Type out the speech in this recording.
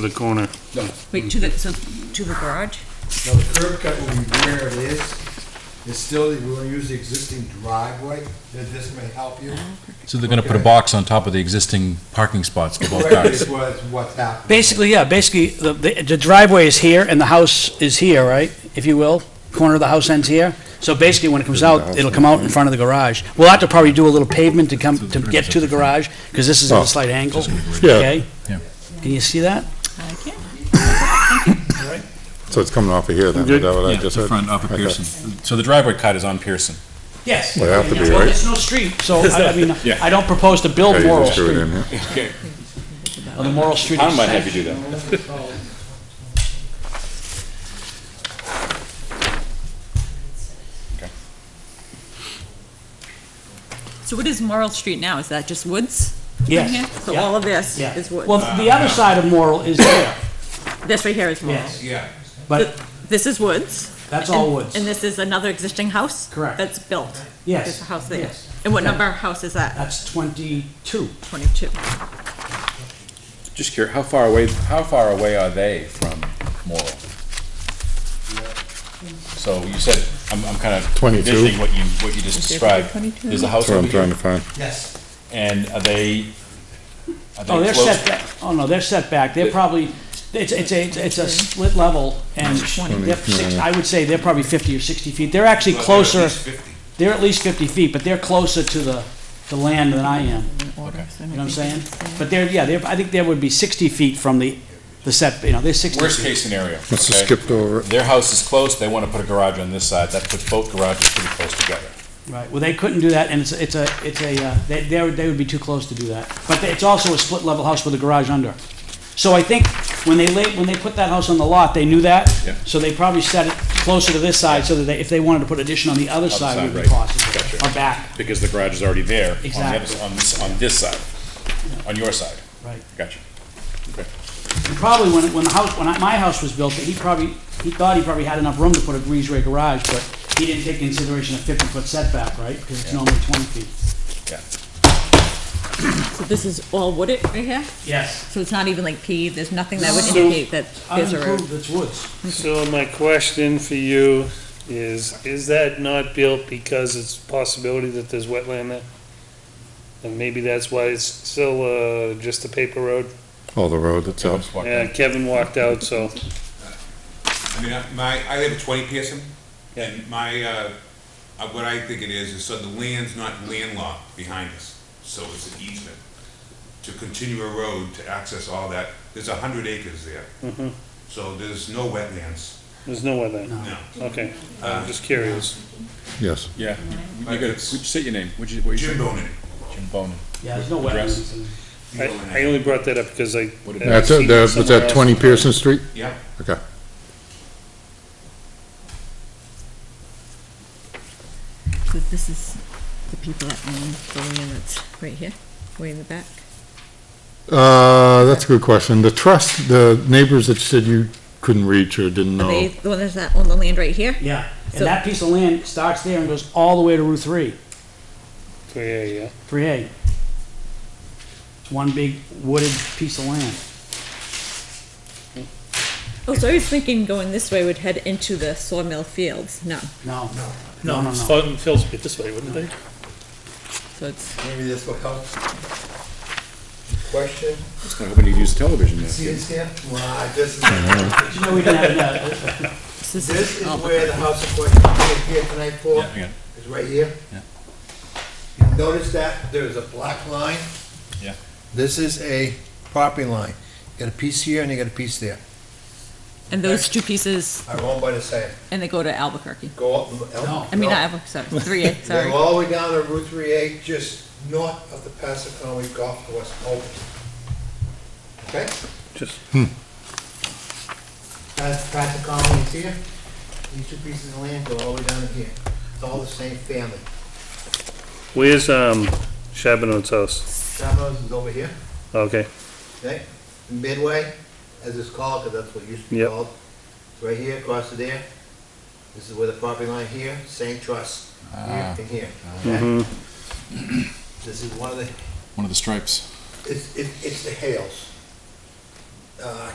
to the corner. Wait, to the, so, to the garage? Now, the curb cut will be where it is. It's still, we're gonna use the existing driveway, that this may help you. So they're gonna put a Okay. box on top of the existing parking spots for both Right, cars. this was what's happening. Basically, yeah, basically, the, the the driveway is here and the house is here, right? If you will, corner of the house ends here. So basically, when it comes out, it'll come out in front of the garage. We'll have to probably do a little pavement to come, to get to the garage, because this Oh. is at a slight angle, okay? Yeah. Can you see that? I can. So it's coming off of here then, is that what I Yeah, just the heard? front off of Okay. Pearson. So the driveway cut is on Pearson. Yes. Well, it'd have to be, Well, right? It's no street, so, I I mean, Yeah. I don't propose to build Yeah, you Morrill just screw it in Street, here. on the Morrill Street. I'm might have you do that. So what is Morrill Street now? Is that just woods? Yes. Right here? So Yeah. all of this Yeah. is woods. Well, the other Uh, side of Morrill is there, This right here is Morrill. yes, Yeah. but This is woods. that's all and- woods. And this is another existing house? Correct. That's built? Yes. There's a house there? Yes. Uh, And what Yeah. number house is that? That's twenty-two. Twenty-two. Just curious, how far away, how far away are they from Morrill? So you said, I'm, I'm kind of 22. envisioning what you, what you just Is there described. 22? There's a That's house what over I'm trying here, to find. Yes. and are they, are Oh, they they're close? set back, oh no, they're set back, they're probably, it's, it's a, it's a split level, and they're six, I would say they're probably fifty or sixty feet, they're actually closer, they're at least fifty feet, but they're closer to the, the land than I am, you know what I'm saying? But they're, yeah, they're, I think there would be sixty feet from the, the set, you know, they're sixty Worst feet. case scenario, Must have okay? skipped over it. Their house is close, they want to put a garage on this side, that puts both garages pretty close together. Right, well, they couldn't do that, and it's, it's a, it's a, uh, they, they would- they would be too close to do that. But it's also a split level house with a garage under. So I think when they laid, when they put that house on the lot, they knew that. Yeah. So they probably set it closer to this side so that they, if they wanted to put addition on the other side, it would side, be right. possible. Gotcha. Or back, because the garage is already there on the other, Exactly. on this, on this side, on your side. right. Gotcha. And Probably when, when the house, when I- my house was built, he probably, he thought he probably had enough room to put a breezeway garage, but he didn't take consideration a fifty-foot setback, right? Because it's normally twenty feet. Yeah. So this is all wooded right here? Yes. So it's not even like paved, there's nothing that would So- indicate that there's a road? Unimproved, it's woods. So my question for you is, is that not built because it's a possibility that there's wetland there? And maybe that's why it's still, uh, just a paper road? Oh, the road So, itself. Yeah, Kevin walked out, so, I mean, I- my, I live at twenty Pearson, and my, uh, uh, what I think it is, is so the land's not landlocked behind us, so it's an easement to continue a road to access all that, there's a hundred acres there. So there's no wetlands, there's no wetland, no. okay, I'm just curious. Yes. yeah, you gotta, would you say your name? What'd you, what'd you Jim say? Bonin. Jim Bonin. Yeah, there's no Address. wetlands. I, I only brought that up because I. What I've That's seen it, that- was somewhere that else. twenty Pearson Street? Yeah. Okay. So this is the people that own the land that's right here, way in the back? Uh, that's a good question. The trust, the neighbors that said you couldn't reach or didn't Are they know. the ones that own the land right here? Yeah, and So- that piece of land starts there and goes all the way to Route Three, Oh, Yeah, yeah, three A. It's one big wooded piece of land. Oh, so I was thinking going this way would head into the sawmill fields. No, No, no, no, no. Phil- Phil's bit this way, wouldn't they? so it's Maybe this will help. Question? I hope you use television See this here? Wow, this is, But You know, we didn't have that. this this is all is the where the house of question is here tonight for, Oh, Yeah, yeah, is right here. Yeah. Notice that there's a black line. Yeah. This is a property line. You got a piece here and you got a piece there. and those two pieces, Are owned by the same. and they go to Albuquerque. Go up. No. I mean, not Albuquerque. Sorry, three A. They Sorry. go all the way down to Route 3A, just north of the Passaconaway Golf Course, over. Okay? Just- Pas- Passaconaway is here, these two pieces of land go all the way down to here. It's all the same family. Where's, um, Chabonot's house? Chavos is over here, Okay, okay? Midway, as it's called, because that's what it used to be Yep. called. It's Right here, across to there. This is where the property line here, same trust, here and here. okay? This is one of the one of the stripes. It's, it- it's the Hales. Uh,